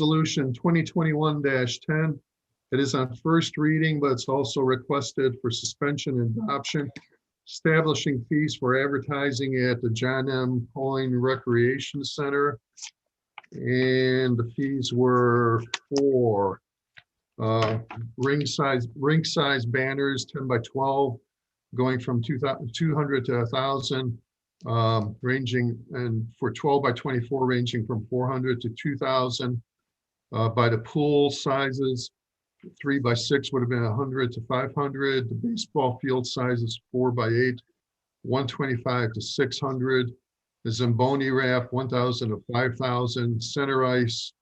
Resolution 2021-10. It is on first reading, but it's also requested for suspension and adoption, establishing fees for advertising at the John M. Coyne Recreation Center. And the fees were for uh, ring size, ring size banners, 10 by 12, going from 2,000 200 to 1,000 um, ranging and for 12 by 24 ranging from 400 to 2,000. Uh, By the pool sizes, three by six would have been 100 to 500. The baseball field sizes, four by eight, 125 to 600. The Zamboni raft, 1,000 to 5,000. Center ice,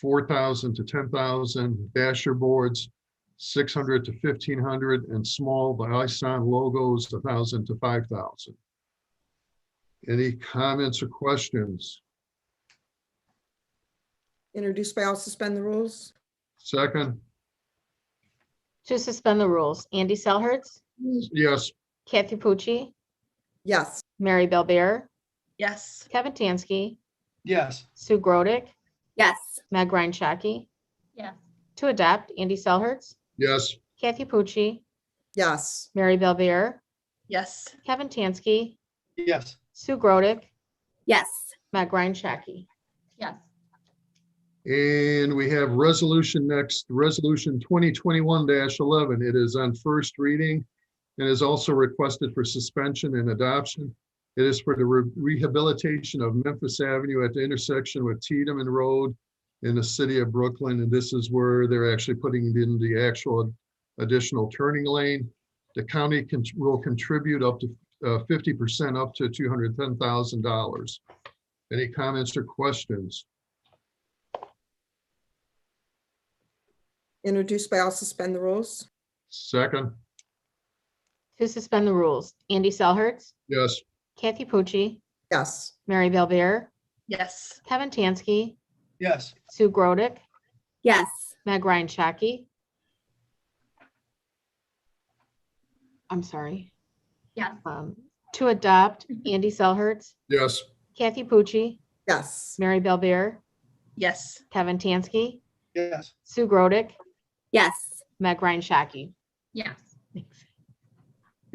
4,000 to 10,000. Dasher boards, 600 to 1,500. And small, the ISON logos, 1,000 to 5,000. Any comments or questions? Introduce by all, suspend the rules? Second, To suspend the rules, Andy Selhertz, yes, Kathy Pucci, Yes. Mary Bellbeer, Yes. Kevin Tansky, yes, Sue Grodick, Yes. Meg Ryan Shaki. Yes. To adopt, Andy Selhertz, yes, Kathy Pucci, Yes. Mary Bellbeer, Yes. Kevin Tansky, yes, Sue Grodick, Yes. Meg Ryan Shaki. Yes. and we have resolution next, resolution twenty twenty-one eleven. It is on first reading and is also requested for suspension and adoption. It is for the re- rehabilitation of Memphis Avenue at the intersection with Tiedemann Road in the city of Brooklyn, and this is where they're actually putting in the actual additional turning lane. The county can, will contribute up to uh, fifty percent up to two hundred ten thousand dollars. Any comments or questions? Introduce by all, suspend the rules? Second, To suspend the rules, Andy Selhertz, yes, Kathy Pucci, Yes. Mary Bellbeer, Yes. Kevin Tansky, yes, Sue Grodick, Yes. Meg Ryan Shaki. I'm sorry. Yes. Um, To adopt, Andy Selhertz, yes, Kathy Pucci, Yes. Mary Bellbeer, Yes. Kevin Tansky, yes, Sue Grodick, Yes. Meg Ryan Shaki. Yes.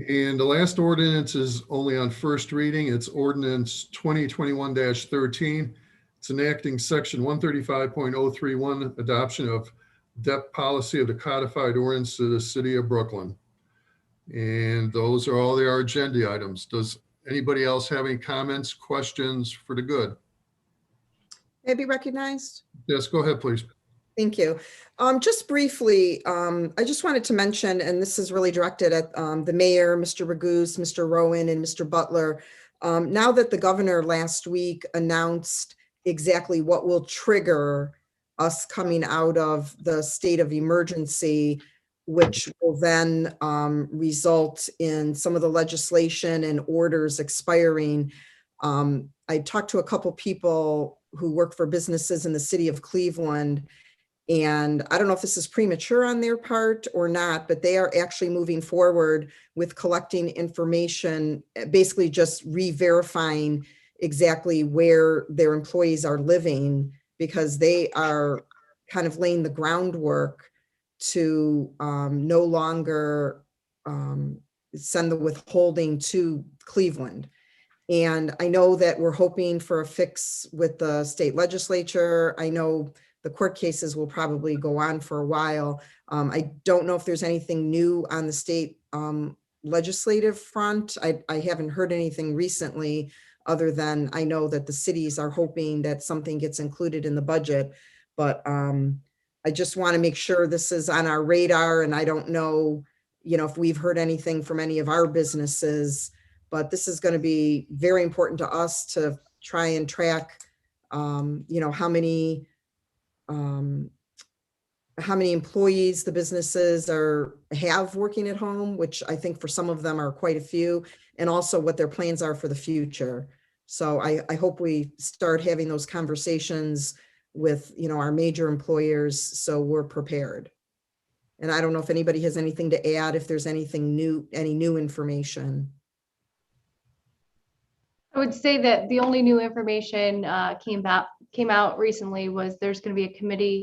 and the last ordinance is only on first reading. It's ordinance twenty twenty-one thirteen. It's enacting section one thirty-five point oh three one, adoption of debt policy of the codified ordinance to the city of Brooklyn. And those are all their agenda items. Does anybody else have any comments, questions for the good? May I be recognized? Yes, go ahead, please. Thank you. Um, just briefly, um, I just wanted to mention, and this is really directed at, um, the mayor, Mr. Raguse, Mr. Rowan, and Mr. Butler. Um, now that the governor last week announced exactly what will trigger us coming out of the state of emergency, which will then, um, result in some of the legislation and orders expiring. Um, I talked to a couple people who work for businesses in the city of Cleveland. And I don't know if this is premature on their part or not, but they are actually moving forward with collecting information, eh, basically just re-verifying exactly where their employees are living because they are kind of laying the groundwork to um, no longer um, send the withholding to Cleveland. And I know that we're hoping for a fix with the state legislature. I know the court cases will probably go on for a while. Um, I don't know if there's anything new on the state um, legislative front. I, I haven't heard anything recently, other than I know that the cities are hoping that something gets included in the budget. But um, I just want to make sure this is on our radar, and I don't know, you know, if we've heard anything from any of our businesses. But this is going to be very important to us to try and track, um, you know, how many um, how many employees the businesses are, have working at home, which I think for some of them are quite a few, and also what their plans are for the future. So I, I hope we start having those conversations with, you know, our major employers, so we're prepared. And I don't know if anybody has anything to add, if there's anything new, any new information. I would say that the only new information uh, came back came out recently was there's going to be a committee